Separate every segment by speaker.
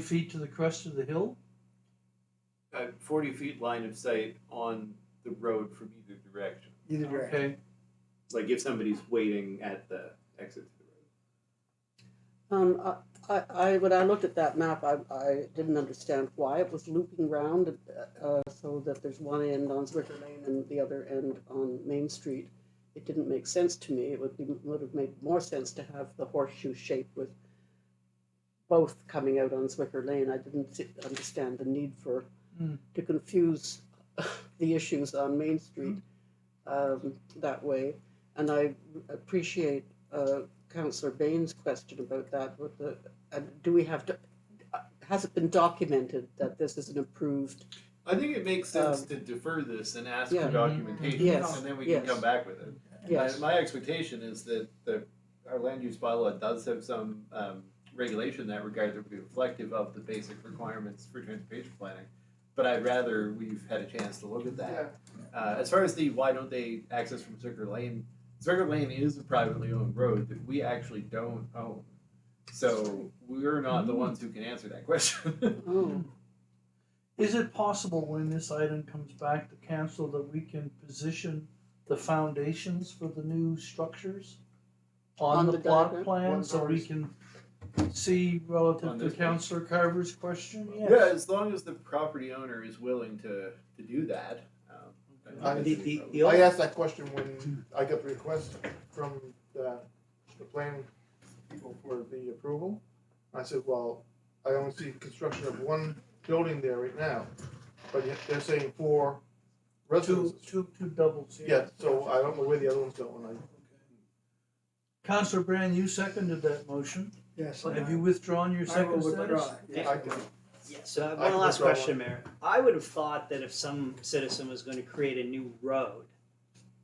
Speaker 1: feet to the crest of the hill?
Speaker 2: uh, forty feet line of sight on the road from either direction.
Speaker 3: Either direction.
Speaker 1: Okay,
Speaker 2: Like if somebody's waiting at the exit to the road.
Speaker 4: Um, I- I, I, when I looked at that map, I, I didn't understand why it was looping round, uh, so that there's one end on Zwicker Lane and the other end on Main Street. It didn't make sense to me. It would be, would have made more sense to have the horseshoe shape with both coming out on Zwicker Lane. I didn't si- understand the need for,
Speaker 1: Hmm.
Speaker 4: to confuse the issues on Main Street, um, that way. And I appreciate, uh, Councillor Bain's question about that, with the, uh, do we have to, uh, has it been documented that this is an approved?
Speaker 2: I think it makes sense
Speaker 4: Um,
Speaker 2: to defer this and ask
Speaker 4: yeah.
Speaker 2: for documentation,
Speaker 4: Yes,
Speaker 2: and then we
Speaker 4: yes.
Speaker 2: can come back with it.
Speaker 4: Yes.
Speaker 2: My, my expectation is that the our land use bylaw does have some um, regulation in that regard that would be reflective of the basic requirements for transportation planning. But I'd rather we've had a chance to look at that. Uh, as far as the why don't they access from Zwicker Lane, Zwicker Lane is a privately owned road that we actually don't own. So we're not
Speaker 4: Mm.
Speaker 2: the ones who can answer that question.
Speaker 4: Oh,
Speaker 1: is it possible when this item comes back to council that we can position the foundations for the new structures?
Speaker 4: On
Speaker 1: On the
Speaker 4: the
Speaker 1: plot
Speaker 4: diagram?
Speaker 1: plan,
Speaker 3: One
Speaker 1: so we can see relative
Speaker 2: On
Speaker 1: to
Speaker 2: this one?
Speaker 1: councillor Carver's question,
Speaker 2: Yeah,
Speaker 1: yes.
Speaker 2: as long as the property owner is willing to, to do that. Um, I don't
Speaker 3: Uh,
Speaker 2: think
Speaker 3: the-
Speaker 2: that's any problem.
Speaker 3: I asked that question when I got the request from the, the plan people for the approval. I said, well, I only see construction of one building there right now, but yet they're saying four
Speaker 1: Two,
Speaker 3: residences.
Speaker 1: two, two doubles here.
Speaker 3: Yeah, so I don't know where the other one's going, I,
Speaker 1: Councillor Brand, you seconded that motion,
Speaker 5: Yes.
Speaker 1: have you withdrawn your
Speaker 5: I will
Speaker 1: second status?
Speaker 5: withdraw.
Speaker 3: I can,
Speaker 6: Yeah, so I have
Speaker 3: I
Speaker 6: one
Speaker 3: can
Speaker 6: last
Speaker 3: withdraw one.
Speaker 6: question, Mayor. I would have thought that if some citizen was going to create a new road,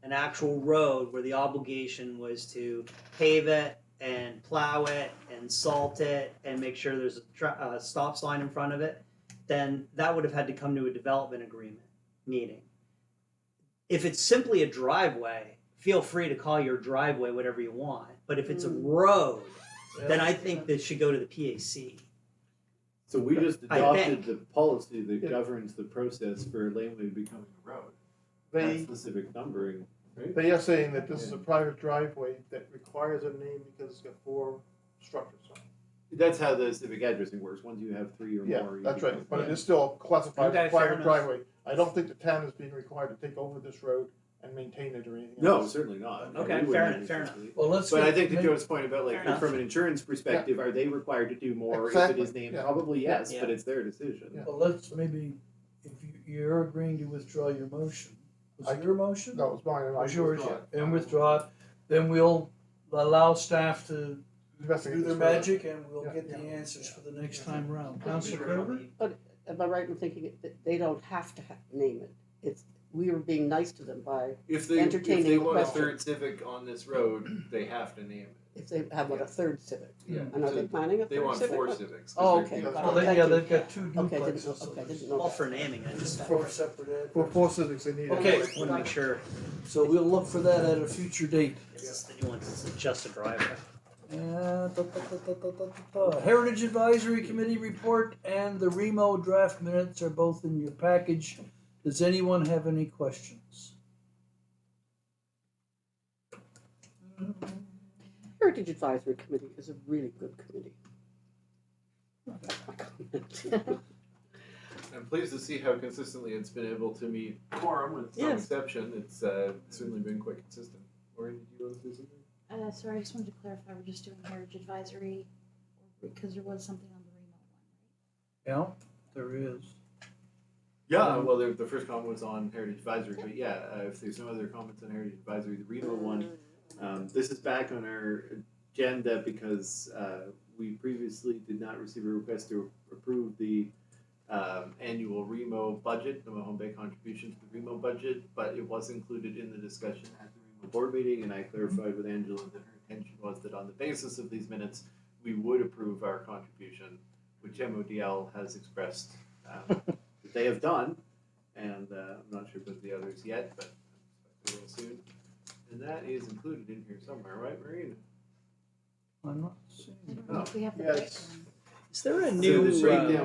Speaker 6: an actual road where the obligation was to pave it and plow it and salt it and make sure there's a tra- uh, stop sign in front of it, then that would have had to come to a development agreement meeting. If it's simply a driveway, feel free to call your driveway whatever you want. But if it's a
Speaker 4: Mm.
Speaker 6: road, then I
Speaker 1: Yeah.
Speaker 6: think that should go to the PAC.
Speaker 2: So we just
Speaker 6: I
Speaker 2: adopted
Speaker 6: think.
Speaker 2: the policy
Speaker 3: Yeah.
Speaker 2: that governs the process for a laneway becoming a road. That
Speaker 3: they,
Speaker 2: specific numbering.
Speaker 3: they are saying that this is a private driveway that requires a name because it's got four structures on it.
Speaker 2: That's how the civic addressing works. Once you have three or
Speaker 3: Yeah,
Speaker 2: more. you
Speaker 3: that's right,
Speaker 2: become-
Speaker 3: but it is still classified
Speaker 6: Okay,
Speaker 3: as
Speaker 6: fair
Speaker 3: private
Speaker 6: enough.
Speaker 3: driveway. I don't think the town is being required to take over this road and maintain it or anything
Speaker 2: No,
Speaker 3: else.
Speaker 2: certainly not.
Speaker 6: Okay,
Speaker 2: We wouldn't
Speaker 6: fair
Speaker 2: have
Speaker 6: enough, fair enough.
Speaker 2: responsibility.
Speaker 1: Well, let's.
Speaker 2: But I
Speaker 1: get-
Speaker 2: think to
Speaker 1: make-
Speaker 2: Joe's point about like
Speaker 6: Fair enough.
Speaker 2: from an insurance perspective, are they required to do more
Speaker 3: Exactly,
Speaker 2: if it is named?
Speaker 3: yeah.
Speaker 2: Probably yes,
Speaker 6: Yeah.
Speaker 2: but it's their decision.
Speaker 3: Yeah.
Speaker 1: Well, let's maybe, if you, you're agreeing to withdraw your motion, was
Speaker 3: I-
Speaker 1: it your motion?
Speaker 3: No, it's mine, and I
Speaker 1: Was yours,
Speaker 3: withdraw it.
Speaker 1: and withdraw it, then we'll allow staff to
Speaker 3: Investigate
Speaker 1: do their
Speaker 3: this further.
Speaker 1: magic and we'll
Speaker 3: Yeah.
Speaker 1: get the answers for the next time round. Councilor Carver?
Speaker 4: am I right in thinking it- that they don't have to ha- name it? It's, we are being nice to them by,
Speaker 2: If they
Speaker 4: Entertaining
Speaker 2: if they
Speaker 4: the
Speaker 2: want a
Speaker 4: question.
Speaker 2: third civic on this road, they have to name it.
Speaker 4: if they have what, a third civic?
Speaker 2: Yeah.
Speaker 4: And are
Speaker 2: So
Speaker 4: they planning a
Speaker 2: They
Speaker 4: third
Speaker 2: want four
Speaker 4: civic?
Speaker 2: civics. 'cause
Speaker 4: Oh,
Speaker 2: they're-
Speaker 4: okay.
Speaker 3: That's
Speaker 4: got
Speaker 1: Well,
Speaker 4: it.
Speaker 1: they, yeah, they've
Speaker 4: Thank you.
Speaker 1: got two
Speaker 4: Okay, I
Speaker 1: duplexes,
Speaker 4: didn't,
Speaker 1: so
Speaker 4: okay, I didn't
Speaker 1: there's
Speaker 4: know
Speaker 6: All
Speaker 4: that.
Speaker 6: for naming, I just
Speaker 1: four separate
Speaker 3: For
Speaker 1: addresses.
Speaker 3: four civics, they need. it.
Speaker 1: Okay.
Speaker 6: want to make sure
Speaker 1: So we'll look for that at a future date.
Speaker 6: Is this the new one? Is it just a driveway?
Speaker 1: Uh, da, da, da, da, da, da, da, da. Heritage Advisory Committee report and the Remo draft minutes are both in your package. Does anyone have any questions?
Speaker 4: Heritage Advisory Committee is a really good committee.
Speaker 2: I'm pleased to see how consistently it's been able to meet quorum with some
Speaker 4: Yes.
Speaker 2: exception. It's uh, certainly been quite consistent. Or did you want to say something?
Speaker 7: Uh, sorry, I just wanted to clarify, we're just doing marriage advisory, because there was something on the remote one,
Speaker 1: Yeah, there is.
Speaker 2: Yeah, well, the, the first comment was on Heritage Advisory, but yeah, uh, if there's no other comments on Heritage Advisory, the Reno one, um, this is back on our agenda because uh, we previously did not receive a request to approve the um, annual Remo budget, the Mahone Bay contribution to the Remo budget, but it was included in the discussion at the Remo board meeting, and I clarified with Angela that her intention was that on the basis of these minutes, we would approve our contribution, which MODL has expressed um, that they have done, and uh, I'm not sure about the others yet, but I will soon. And that is included in here somewhere, right, Marina?
Speaker 1: I'm not seeing.
Speaker 7: right? I don't know if we have the
Speaker 3: Yes.
Speaker 7: right one.
Speaker 6: Is there a
Speaker 2: So
Speaker 6: new
Speaker 2: this
Speaker 6: uh,
Speaker 2: breakdown